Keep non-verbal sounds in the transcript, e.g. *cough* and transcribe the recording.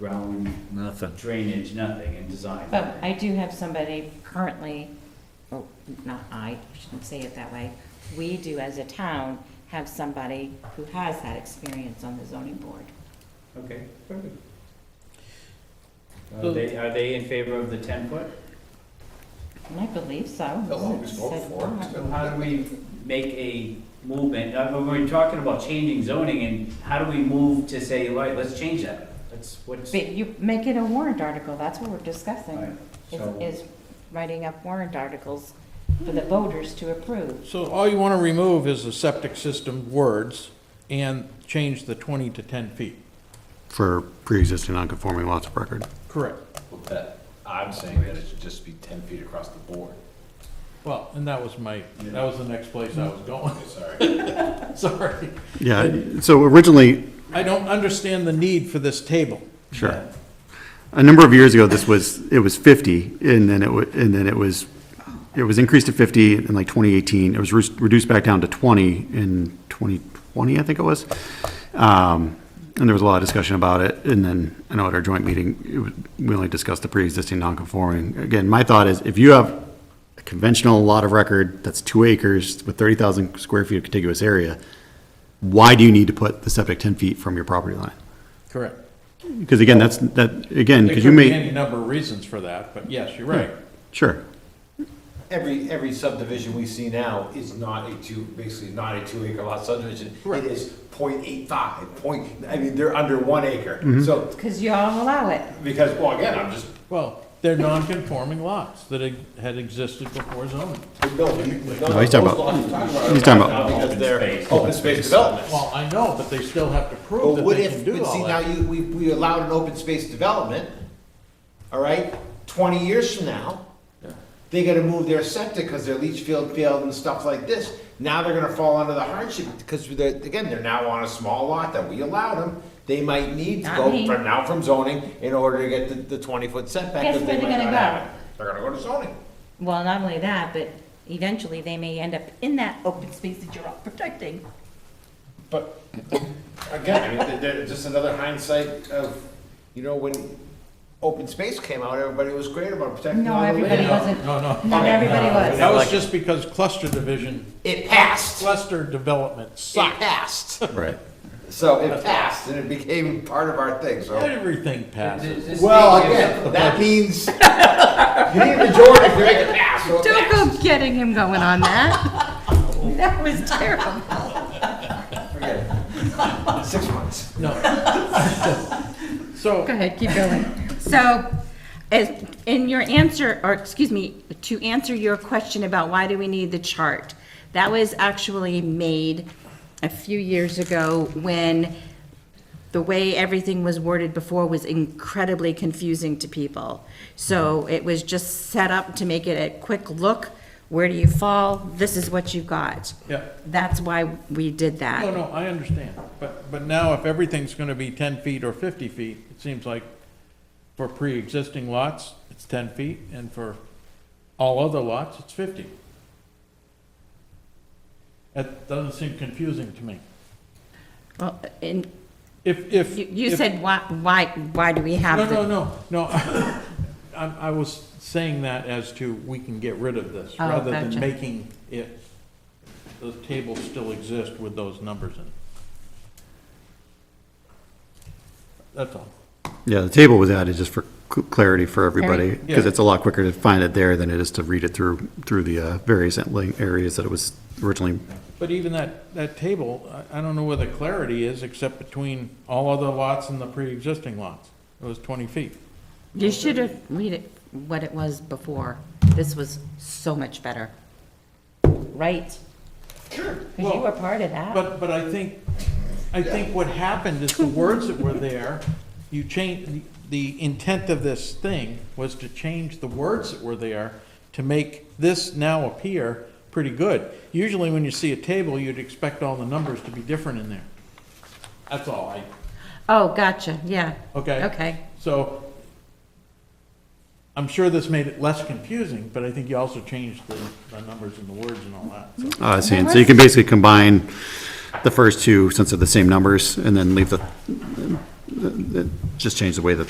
ground Nothing. drainage, nothing, and design. But I do have somebody currently, oh, not I, I shouldn't say it that way. We do as a town have somebody who has that experience on the zoning board. Okay, perfect. Are they, are they in favor of the ten foot? And I believe so. They'll always vote Said for it, that. so- How do we make a movement, uh, when we're talking about changing zoning, and how do we move to say, all right, let's change that? Let's, what's, But you make it a warrant article, that's what we're Right, discussing, so- is, is writing up warrant articles for the voters to approve. So all you want to remove is the septic system words and change the 20 to 10 feet. for pre-existing non-conforming lots of record. Correct. Well, that, I'm saying that it should just be ten feet across the board. Well, and that was my, that was the next place I was Mm-hmm. going, *laughs* Sorry. sorry. Yeah, so originally, I don't understand the need for this table. sure. A number of years ago, this was, it was 50, and then it was, and then it was, it was increased to 50 in like 2018. It was re- reduced back down to 20 in 2020, I think it was. Um, And there was a lot of discussion about it, and then I know at our joint meeting, it was- we only discussed the pre-existing non-conforming. Again, my thought is, if you have a conventional lot of record that's two acres with 30,000 square feet of contiguous area, why do you need to put the septic 10 feet from your property line? Correct. Because again, that's, that, again, There because you could be may, any number of reasons for that, but yes, you're right. sure, Every, every subdivision we see now is not a two, basically not a two acre lot subdivision. It Correct. is point eight five, point, I mean, they're under one acre. Mm-hmm. So, Because you all allow it. because, well, again, I'm just, Well, they're non-conforming lots that had existed before zoning. no, you- no, No, he's those talking about- lots you're talking he's talking are about not Because open they're space. open space developments. Well, I know, but they still have to prove But that what they if, can do but see, all now that. you, we, we allowed an open space development, all right? Twenty years from now, they gotta move their septic because their leach field failed and stuff like this. Now they're gonna fall under the hardship, because they're, again, they're now on a small lot that we allowed them. They might need to Not go me. from now from zoning in order to get the, the twenty foot setback. Guess 'cause they where they're might gonna not have go? it. They're gonna go to zoning. Well, not only that, but eventually they may end up in that open space that you're all protecting. But, again, I mean, they're, they're just another hindsight of, you know, when open space came out, everybody was great about protecting No, all the land. everybody wasn't, No, no. not everybody That was. was just because cluster division, It passed. It cluster development sucked. passed. right. So it passed and it became part of our thing, so. Everything passes. Well, again, *laughs* that means you need a majority to make it pass. so it Don't passed. go getting him going on that. *laughs* That was terrible. Forget it. Six months. No. So, Go ahead, keep going. So, as, in your answer, or excuse me, to answer your question about why do we need the chart, that was actually made a few years ago when the way everything was worded before was incredibly confusing to people. So it was just set up to make it a quick look, where do you fall, this is what you got. Yeah. That's why we did that. no, no, I understand, but, but now if everything's gonna be ten feet or fifty feet, it seems like for pre-existing lots, it's ten feet, and for all other lots, it's fifty. That doesn't seem confusing to me. Well, and If, if. you, you if- said why, why, why do we have No, the? no, no, no, *laughs* I, I was saying that as to we can get rid of this, Oh, rather than gotcha. making it, the tables still exist with those numbers in. it. That's all. Yeah, the table was added just for cl- clarity for everybody, Clarity. because Yeah. it's a lot quicker to find it there than it is to read it through, through the uh, various link areas that it was originally. But even that, that table, I, I don't know where the clarity is, except between all other lots and the pre-existing lots. It was twenty feet. You should have read it, what it was before. This was so much better. Right? Sure. Because you were part of that. But, but I think, I think what happened is the words that were there, you change, the intent of this thing was to change the words that were there to make this now appear pretty good. Usually when you see a table, you'd expect all the numbers to be different in there. That's all I, Oh, gotcha, yeah. okay? Okay. So I'm sure this made it less confusing, but I think you also changed the, the numbers and the words and all that. so. Uh, seeing. So you can basically combine the first two, since they're the same numbers, and then leave the, the- the- just change the way that